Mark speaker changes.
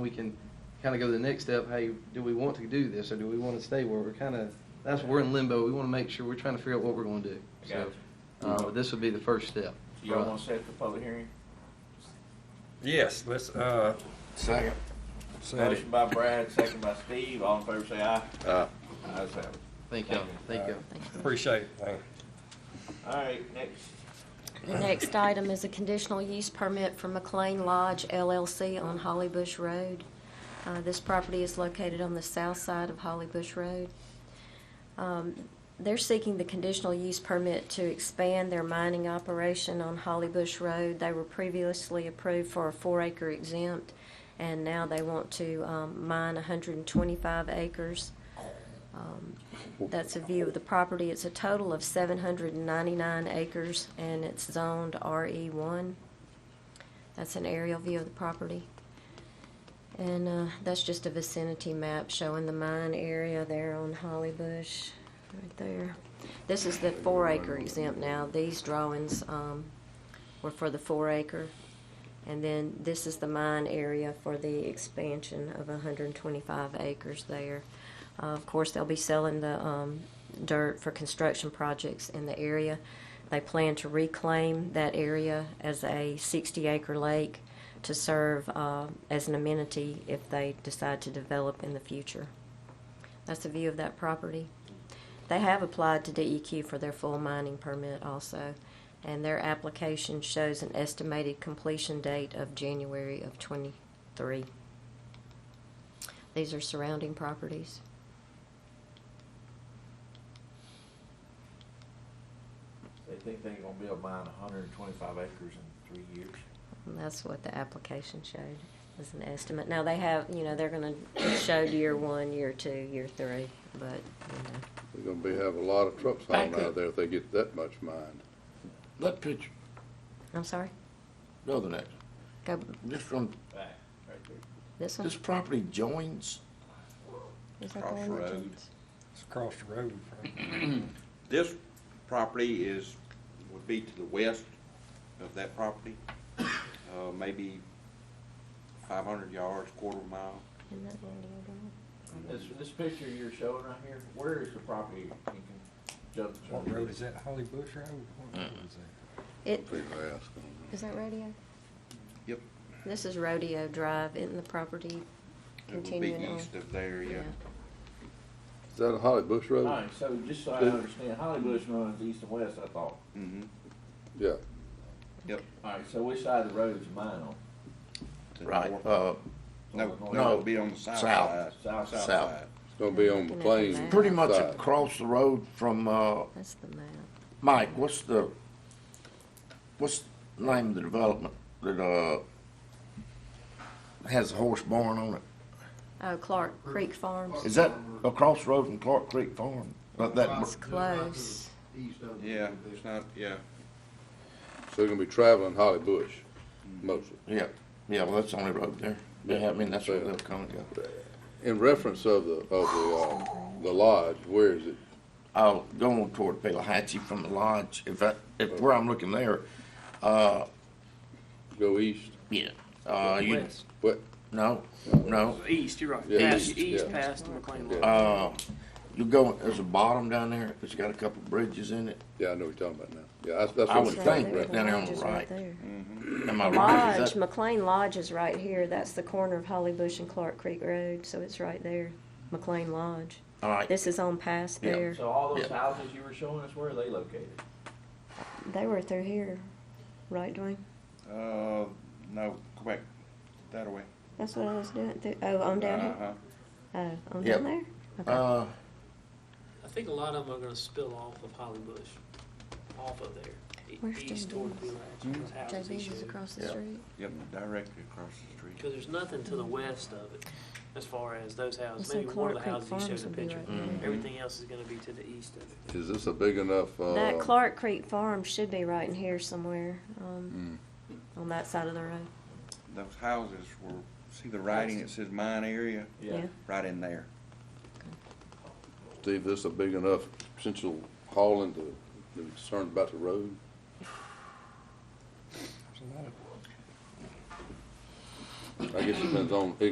Speaker 1: we can kind of go to the next step, hey, do we want to do this, or do we want to stay where we're kind of, that's, we're in limbo, we want to make sure, we're trying to figure out what we're going to do.
Speaker 2: I
Speaker 1: So,
Speaker 2: got
Speaker 1: uh, but this would be the first step.
Speaker 2: Do y'all
Speaker 1: Right.
Speaker 2: want to set the public hearing?
Speaker 3: Yes, let's, uh,
Speaker 4: Second.
Speaker 3: set it.
Speaker 2: Motion by Brad, second by Steve, all in favor say aye.
Speaker 4: Aye.
Speaker 2: Ayes have it.
Speaker 1: Thank y'all, thank y'all.
Speaker 3: Appreciate it. Thank you.
Speaker 2: All right, next,
Speaker 5: The next item is a conditional use permit for McLean Lodge LLC on Holly Bush Road. Uh, This property is located on the south side of Holly Bush Road. Um, They're seeking the conditional use permit to expand their mining operation on Holly Bush Road. They were previously approved for a four-acre exempt, and now they want to um, mine 125 acres. Um, That's a view of the property. It's a total of 799 acres, and it's zoned RE1. That's an aerial view of the property. And uh, that's just a vicinity map showing the mine area there on Holly Bush, right there. This is the four acre exempt now. These drawings um, were for the four acre. And then this is the mine area for the expansion of 125 acres there. Uh, Of course, they'll be selling the um, dirt for construction projects in the area. They plan to reclaim that area as a 60-acre lake to serve uh, as an amenity if they decide to develop in the future. That's a view of that property. They have applied to DEQ for their full mining permit also, and their application shows an estimated completion date of January of '23. These are surrounding properties.
Speaker 2: they think they're gonna build mine hundred and twenty-five acres in three years.
Speaker 5: And that's what the application showed, as an estimate. Now, they have, you know, they're going to show year one, year two, year three, but, you know.
Speaker 4: They're gonna be, have a lot of trucks
Speaker 6: Back
Speaker 4: hauling out
Speaker 6: up.
Speaker 4: there if they get that much mined.
Speaker 6: That picture,
Speaker 5: I'm sorry,
Speaker 6: the other next,
Speaker 5: go,
Speaker 6: this from,
Speaker 2: Right, right there.
Speaker 5: this one?
Speaker 6: this property joins,
Speaker 5: Is that the one that
Speaker 7: Off-road.
Speaker 5: joins?
Speaker 3: It's across the road from.
Speaker 7: This property is, would be to the west of that property, uh, maybe five hundred yards, quarter of a mile.
Speaker 5: Isn't that the one that joins?
Speaker 2: This, this picture you're showing right here, where is the property in conjunction?
Speaker 3: What road is that? Holly Bush Road? What road is that?
Speaker 5: It,
Speaker 4: Pretty fast. huh?
Speaker 5: is that rodeo?
Speaker 7: Yep.
Speaker 5: This is Rodeo Drive, isn't the property
Speaker 7: It would be
Speaker 5: continuing on?
Speaker 7: east of there, yeah.
Speaker 4: Is that a Holly Bush
Speaker 2: All
Speaker 4: Road?
Speaker 2: right, so just so I understand, Holly Bush runs east and west, I thought.
Speaker 7: Mm-hmm.
Speaker 4: Yeah.
Speaker 2: All right, so which side of the road is mine on?
Speaker 6: right, uh,
Speaker 7: No,
Speaker 6: No,
Speaker 7: no, it'd be on the south side.
Speaker 6: south.
Speaker 2: South.
Speaker 7: South
Speaker 6: South.
Speaker 7: side.
Speaker 4: It's gonna be on
Speaker 5: Looking at the
Speaker 4: McLean.
Speaker 5: map.
Speaker 6: pretty much
Speaker 4: side.
Speaker 6: across the road from, uh,
Speaker 5: That's the map.
Speaker 6: Mike, what's the, what's the name of the development that, uh, has a horse barn on it?
Speaker 5: Oh, Clark Creek Farms,
Speaker 6: Is that across the road from Clark Creek Farm? But that,
Speaker 5: it's close.
Speaker 7: Yeah, it's not, yeah.
Speaker 4: So they're gonna be traveling Holly Bush mostly.
Speaker 6: yeah, yeah, well, that's the only road there. Yeah, I mean, that's where they'll come and go.
Speaker 4: In reference of the, of the, uh, the lodge, where is it?
Speaker 6: I'll go on toward Pelahatchie from the lodge, if that, if where I'm looking there, uh,
Speaker 4: Go east?
Speaker 6: yeah, uh, you,
Speaker 8: West.
Speaker 4: What?
Speaker 6: no, no,
Speaker 8: East, you're right.
Speaker 4: Yeah,
Speaker 8: Past,
Speaker 4: east,
Speaker 8: east
Speaker 4: yeah.
Speaker 8: past the McLean Lodge.
Speaker 6: uh, you go, there's a bottom down there, it's got a couple bridges in it,
Speaker 4: Yeah, I know what you're talking about now. Yeah, that's, that's.
Speaker 6: I
Speaker 4: what
Speaker 6: would
Speaker 4: I'm
Speaker 6: think
Speaker 4: thinking right
Speaker 6: that- down there on the right. am I right? Is
Speaker 5: Lodge,
Speaker 6: that-
Speaker 5: McLean Lodge is right here, that's the corner of Holly Bush and Clark Creek Road, so it's right there, McLean Lodge.
Speaker 6: All right,
Speaker 5: This is on past
Speaker 6: Yeah.
Speaker 5: there,
Speaker 2: So all those
Speaker 6: Yeah.
Speaker 2: houses you were showing us, where are they located?
Speaker 5: they were through here, right Dwayne?
Speaker 7: Uh, no, go back that way.
Speaker 5: That's what I was doing, through, oh, on down here,
Speaker 7: Uh-huh.
Speaker 5: oh, on
Speaker 6: Yep.
Speaker 5: down there? Okay.
Speaker 6: uh,
Speaker 8: I think a lot of them are gonna spill off of Holly Bush, off of there, e-
Speaker 5: Where's
Speaker 8: east
Speaker 5: JB's?
Speaker 8: toward Blue Latch, those houses he
Speaker 5: JB's is
Speaker 8: showed.
Speaker 5: across the
Speaker 6: Yeah.
Speaker 5: street.
Speaker 7: Yep, directly across the street.
Speaker 8: Cause there's nothing to the
Speaker 5: Mm-hmm.
Speaker 8: west of it, as far as those houses,
Speaker 5: So
Speaker 8: maybe one of the
Speaker 5: Clark Creek
Speaker 8: houses he
Speaker 5: Farms
Speaker 8: showed a
Speaker 5: would be
Speaker 8: picture.
Speaker 5: right there. Mhm.
Speaker 8: Everything else is gonna be to the east of it.
Speaker 4: Is this a big enough, uh?
Speaker 5: That Clark Creek Farm should be right in here somewhere,
Speaker 4: hmm.
Speaker 5: um,
Speaker 6: Mm.
Speaker 5: on that side of the road.
Speaker 7: Those houses were, see the writing, it says mine area,
Speaker 5: Yeah.
Speaker 7: right in there.
Speaker 4: Steve, this a big enough potential hauling to, to be concerned about the road?
Speaker 3: There's a lot of
Speaker 4: I guess it depends on, it